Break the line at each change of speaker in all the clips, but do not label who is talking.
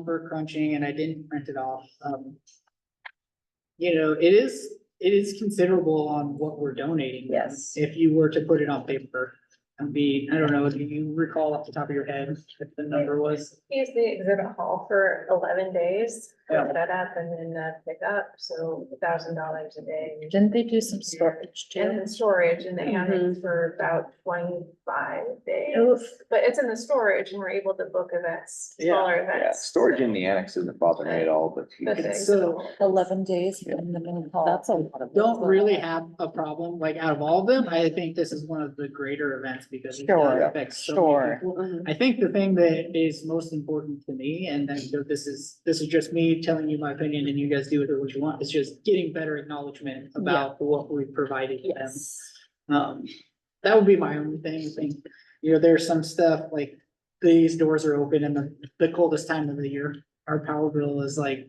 number crunching and I didn't print it off, um. You know, it is, it is considerable on what we're donating.
Yes.
If you were to put it on paper and be, I don't know, do you recall off the top of your head what the number was?
Use the exhibit hall for eleven days,
Yeah.
put that up and then uh, pick up, so thousand dollars a day.
Didn't they do some storage
And
too?
then storage and they had it for about twenty-five days,
Oof.
but it's in the storage and we're able to book events,
Yeah.
smaller
Yeah,
events.
storage in the annex doesn't bother me at all, but you
But the
can,
So-
exhibit
Eleven days in the middle hall. That's a lot of.
Don't really have a problem, like out of all of them, I think this is one of the greater events because. it does
Sure,
affect so many
sure. Mm-hmm.
people. I think the thing that is most important to me, and then so this is, this is just me telling you my opinion and you guys do with it what you want, is just getting better acknowledgement about what we provided to them.
Yes.
Um, that would be my only thing, I think, you know, there's some stuff like these doors are open in the, the coldest time of the year. Our power bill is like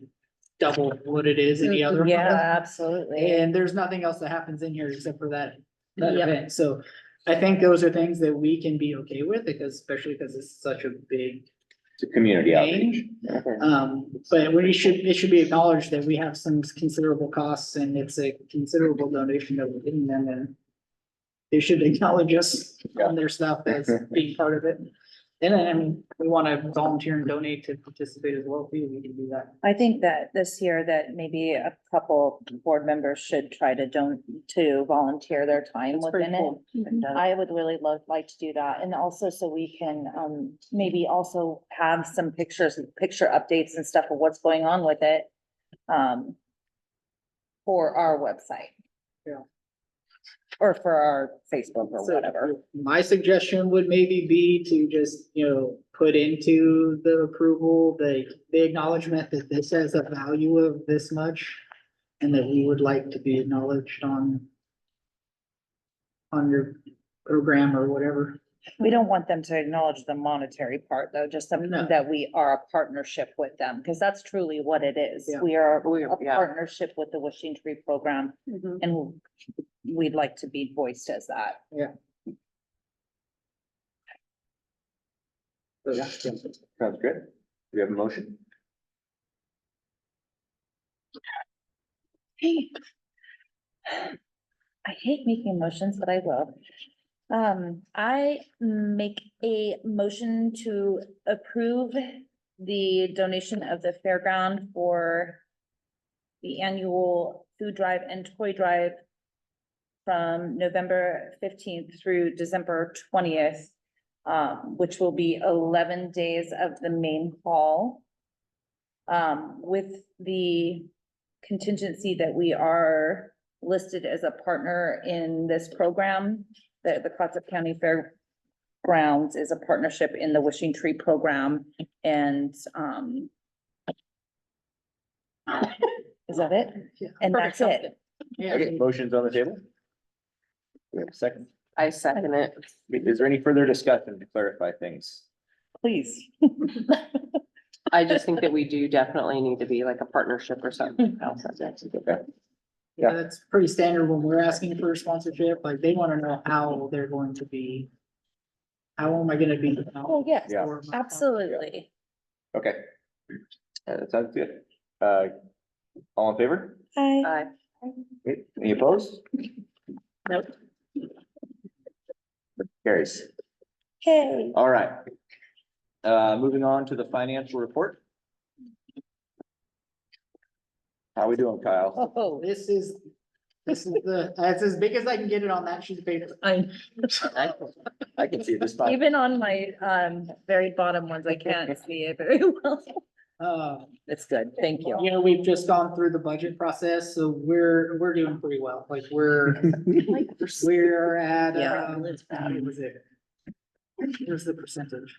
double what it is any other. month.
Mm, Yeah, absolutely.
And there's nothing else that happens in here except for that, that
Yep.
event, so. I think those are things that we can be okay with, because especially because it's such a big
it's a community outreach.
thing. Um, but we should, it should be acknowledged that we have some considerable costs and it's a considerable donation that we're giving them and. They should acknowledge us on their stuff as being part of it. And then, I mean, we wanna volunteer and donate to participate as well, we, we can do that.
I think that this year that maybe a couple board members should try to don't, to volunteer their time
It's pretty
within it.
cool.
I would really love, like to do that, and also so we can, um, maybe also have some pictures, picture updates and stuff of what's going on with it. Um. For our website.
Yeah.
Or for our Facebook or
So,
whatever,
My suggestion would maybe be to just, you know, put into the approval, the, the acknowledgement that this has a value of this much. And that we would like to be acknowledged on. On your program or whatever.
we don't want them to acknowledge the monetary part, though, just something
No.
that we are a partnership with them, because that's truly what it is.
Yeah. Mm-hmm.
We are
We-
a
yeah.
partnership with the Wishing Tree Program, and we'd like to be voiced as that.
So, yeah, yeah.
Sounds good. Do we have a motion?
Hey. I hate making motions, but I will. Um, I make a motion to approve the donation of the fairground for the annual food drive and toy drive from November fifteenth through December twentieth, um, which will be eleven days of the main hall. Um, with the contingency that we are listed as a partner in this program, that the Clatsop County Fairgrounds is a partnership in the Wishing Tree Program and, um, is that it?
Yeah.
And that's it.
Yeah,
Okay, motion's on the table? Do We have a second.
I second it.
Is there any further discussion to clarify things?
Please.
I just think that we do definitely need to be like a partnership or something else.
Okay.
yeah, that's pretty standard when we're asking for a sponsorship, like they wanna know how they're going to be. How am I gonna be?
Oh, yes,
Yeah.
for my-
absolutely.
Okay. Uh, That sounds good. Uh, all in favor?
I,
I,
Okay, Any opposed?
Nope.
Carries.
hey,
All right. Uh, moving on to the financial report. How we doing, Kyle?
oh,
This is, this is the, that's as big as I can get it on that sheet of paper.
I,
I can see this. fine.
even on my, um, very bottom ones, I can't see it very well.
Uh,
It's good, thank you.
you know, we've just gone through the budget process, so we're, we're doing pretty well, like, we're, we're at,
Yeah.
um, what was it? Here's the percentage,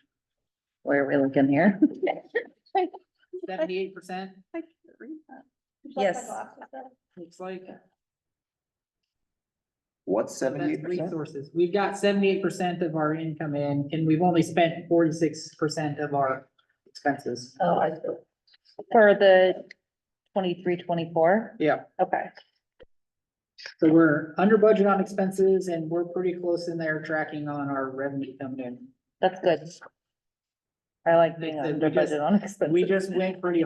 Where are we looking here?
seventy-eight percent,
Yes.
looks like. That's
What's seventy-eight percent?
resources, we've got seventy-eight percent of our income in, and we've only spent forty-six percent of our expenses.
Oh, I. For the twenty-three, twenty-four?
Yeah.
Okay,
So we're under budget on expenses, and we're pretty close in there tracking on our revenue coming in.
that's good.
I like being under budget on expenses.
We just went pretty